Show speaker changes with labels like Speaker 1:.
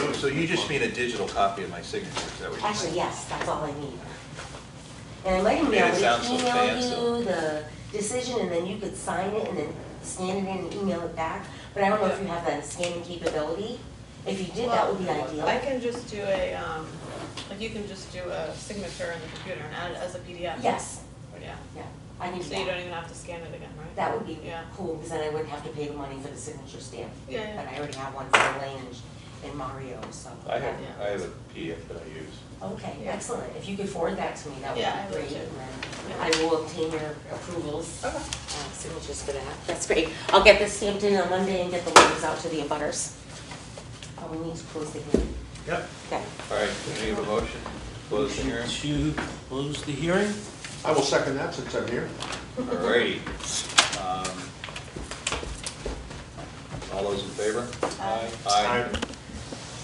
Speaker 1: So you just mean a digital copy of my signature, is that what you're saying?
Speaker 2: Actually, yes, that's all I need. And let him
Speaker 1: Man,
Speaker 2: know,
Speaker 1: it sounds so
Speaker 2: we
Speaker 1: fancy.
Speaker 2: email you the decision, and then you could sign it, and then scan it in and email it back. But I don't know if you have that scanning capability. If you did, that would be
Speaker 3: Well,
Speaker 2: ideal.
Speaker 3: I can just do a, um, like you can just do a signature on the computer and add it as a PDF.
Speaker 2: Yes,
Speaker 3: Yeah,
Speaker 2: yeah, I need
Speaker 3: so you
Speaker 2: that.
Speaker 3: don't even have to scan it again, right?
Speaker 2: That would be
Speaker 3: Yeah.
Speaker 2: cool, because then I wouldn't have to pay the money for the signature stamp.
Speaker 3: Yeah, yeah.
Speaker 2: But I already have one for Elaine and- and Mario, so.
Speaker 1: I have,
Speaker 3: Yeah.
Speaker 1: I have a PDF that I use.
Speaker 2: Okay,
Speaker 3: Yeah.
Speaker 2: excellent. If you could forward that to me, that
Speaker 3: Yeah, I will
Speaker 2: would be great.
Speaker 3: do.
Speaker 2: And then
Speaker 3: Yeah.
Speaker 2: I will obtain your approvals.
Speaker 3: Okay.
Speaker 2: uh, signatures for that. That's great. I'll get this stamped in on Monday and get the letters out to the abutters. Uh, we need to close the hearing.
Speaker 4: Yep.
Speaker 2: Okay.
Speaker 1: All right, can I have a motion? Close the hearing?
Speaker 5: To close the hearing?
Speaker 4: I will second that since I'm here.
Speaker 1: All righty. Um, All those in favor?
Speaker 3: Aye.
Speaker 1: Aye.